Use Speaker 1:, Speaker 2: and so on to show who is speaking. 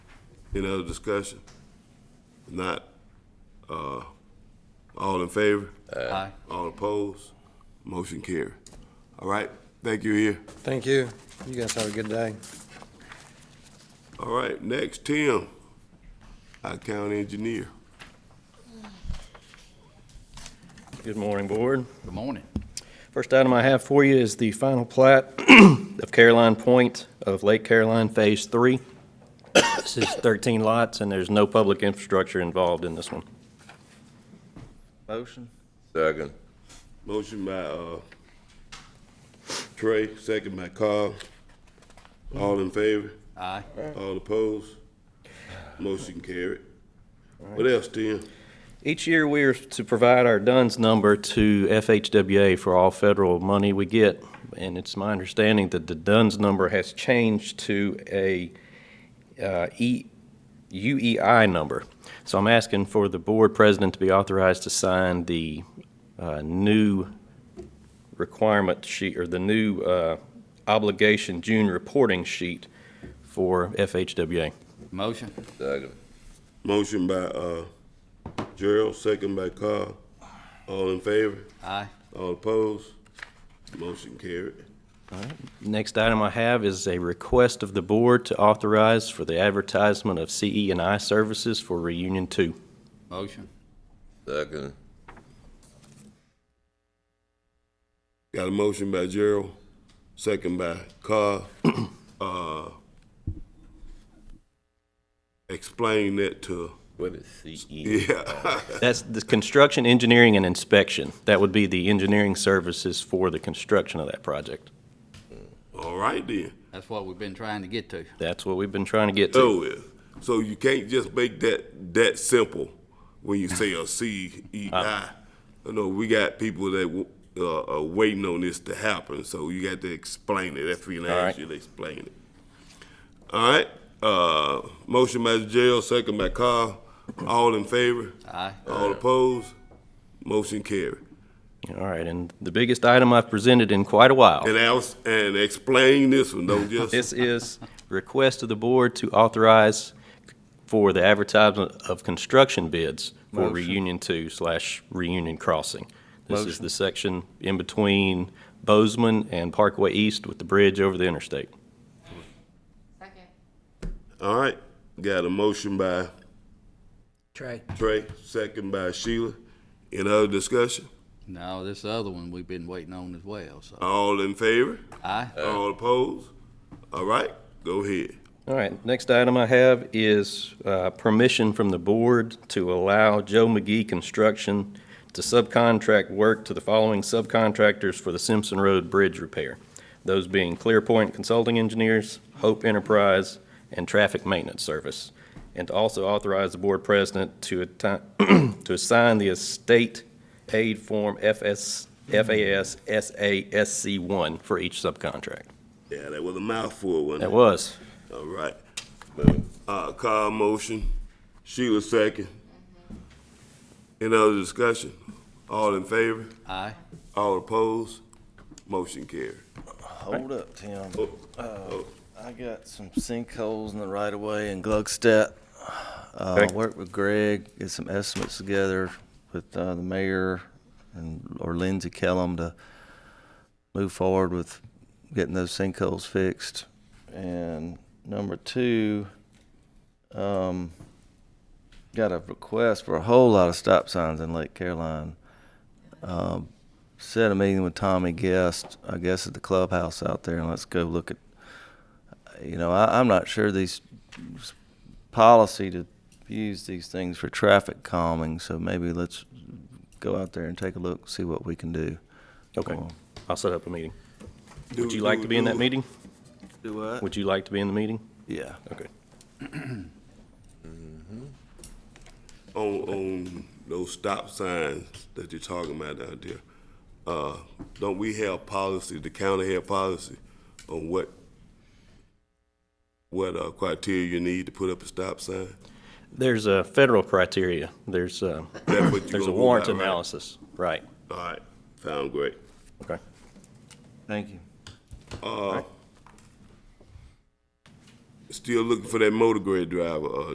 Speaker 1: Any other discussion? Not, uh, all in favor?
Speaker 2: Aye.
Speaker 1: All opposed? Motion carry. All right, thank you here.
Speaker 3: Thank you. You guys have a good day.
Speaker 1: All right, next, Tim, our county engineer.
Speaker 4: Good morning, Board.
Speaker 2: Good morning.
Speaker 4: First item I have for you is the final plat of Caroline Point of Lake Caroline Phase Three. This is 13 lots, and there's no public infrastructure involved in this one.
Speaker 2: Motion?
Speaker 5: Second.
Speaker 1: Motion by, uh, Trey, second by Carl. All in favor?
Speaker 2: Aye.
Speaker 1: All opposed? Motion carried. What else, Tim?
Speaker 4: Each year, we are to provide our DUNS number to FHWA for all federal money we get, and it's my understanding that the DUNS number has changed to a uh, E- UEI number. So I'm asking for the board president to be authorized to sign the uh, new requirement sheet, or the new uh, obligation June reporting sheet for FHWA.
Speaker 2: Motion?
Speaker 5: Second.
Speaker 1: Motion by, uh, Gerald, second by Carl. All in favor?
Speaker 2: Aye.
Speaker 1: All opposed? Motion carried.
Speaker 4: Next item I have is a request of the board to authorize for the advertisement of CE and I services for reunion two.
Speaker 2: Motion?
Speaker 5: Second.
Speaker 1: Got a motion by Gerald, second by Carl. Uh, explain that to,
Speaker 5: What is E? CE?
Speaker 1: yeah,
Speaker 4: That's the construction, engineering, and inspection. That would be the engineering services for the construction of that project.
Speaker 1: all right then.
Speaker 2: That's what we've been trying to get to.
Speaker 4: That's what we've been trying to get to.
Speaker 1: So, uh, so you can't just make that, that simple when you say a C E I.
Speaker 4: Uh-huh.
Speaker 1: You know, we got people that w- uh, are waiting on this to happen, so you got to explain it. That's when I
Speaker 4: All right.
Speaker 1: ask you to explain it. All right, uh, motion by Gerald, second by Carl. All in favor?
Speaker 2: Aye.
Speaker 1: All opposed? Motion carried.
Speaker 4: All right, and the biggest item I've presented in quite a while.
Speaker 1: And else, and explain this one, don't just,
Speaker 4: This is request of the board to authorize for the advertisement of construction bids for reunion two slash reunion crossing. This is the section in between Bozeman and Parkway East with the bridge over the interstate.
Speaker 6: Second.
Speaker 1: all right. Got a motion by
Speaker 7: Trey.
Speaker 1: Trey, second by Sheila. Any other discussion?
Speaker 2: Now, this other one we've been waiting on as well, so.
Speaker 1: All in favor?
Speaker 2: Aye.
Speaker 1: All opposed? All right, go ahead.
Speaker 4: All right, next item I have is uh, permission from the board to allow Joe McGee Construction to subcontract work to the following subcontractors for the Simpson Road Bridge repair. Those being Clearpoint Consulting Engineers, Hope Enterprise, and Traffic Maintenance Service. And to also authorize the board president to atti- to assign the estate aid form FS, FAS SASC1 for each subcontract.
Speaker 1: Yeah, that was a mouthful, wasn't it?
Speaker 4: That was.
Speaker 1: All right. Uh, Carl motion, Sheila second. Any other discussion? All in favor?
Speaker 2: Aye.
Speaker 1: All opposed? Motion carried.
Speaker 8: Hold up, Tim. Uh,
Speaker 1: Oh,
Speaker 8: I got some sinkholes in the right of way in Gluckstadt. Uh,
Speaker 4: Okay.
Speaker 8: worked with Greg, get some estimates together with, uh, the mayor and, or Lindsey Kellum to move forward with getting those sinkholes fixed. And number two, um, got a request for a whole lot of stop signs in Lake Caroline. Um, set a meeting with Tommy Guest, I guess at the clubhouse out there, and let's go look at, you know, I, I'm not sure these s- policy to use these things for traffic calming, so maybe let's go out there and take a look, see what we can do. Um,
Speaker 4: Okay,
Speaker 8: Well-
Speaker 4: I'll set up a meeting. Would
Speaker 1: Do-
Speaker 4: you like
Speaker 1: do-
Speaker 4: to be in that
Speaker 1: do-
Speaker 4: meeting?
Speaker 8: Do what?
Speaker 4: Would you like to be in the meeting?
Speaker 8: Yeah.
Speaker 4: Okay.
Speaker 1: On, on those stop signs that you're talking about out there, uh, don't we have policy, the county have policy on what, what, uh, criteria you need to put up a stop sign?
Speaker 4: There's a federal criteria. There's a,
Speaker 1: That's what you
Speaker 4: there's a
Speaker 1: gonna go
Speaker 4: warrant
Speaker 1: by, right?
Speaker 4: analysis. Right.
Speaker 1: All right, sound great.
Speaker 4: Okay.
Speaker 8: Thank you.
Speaker 1: Uh, still looking for that motor grade driver, uh,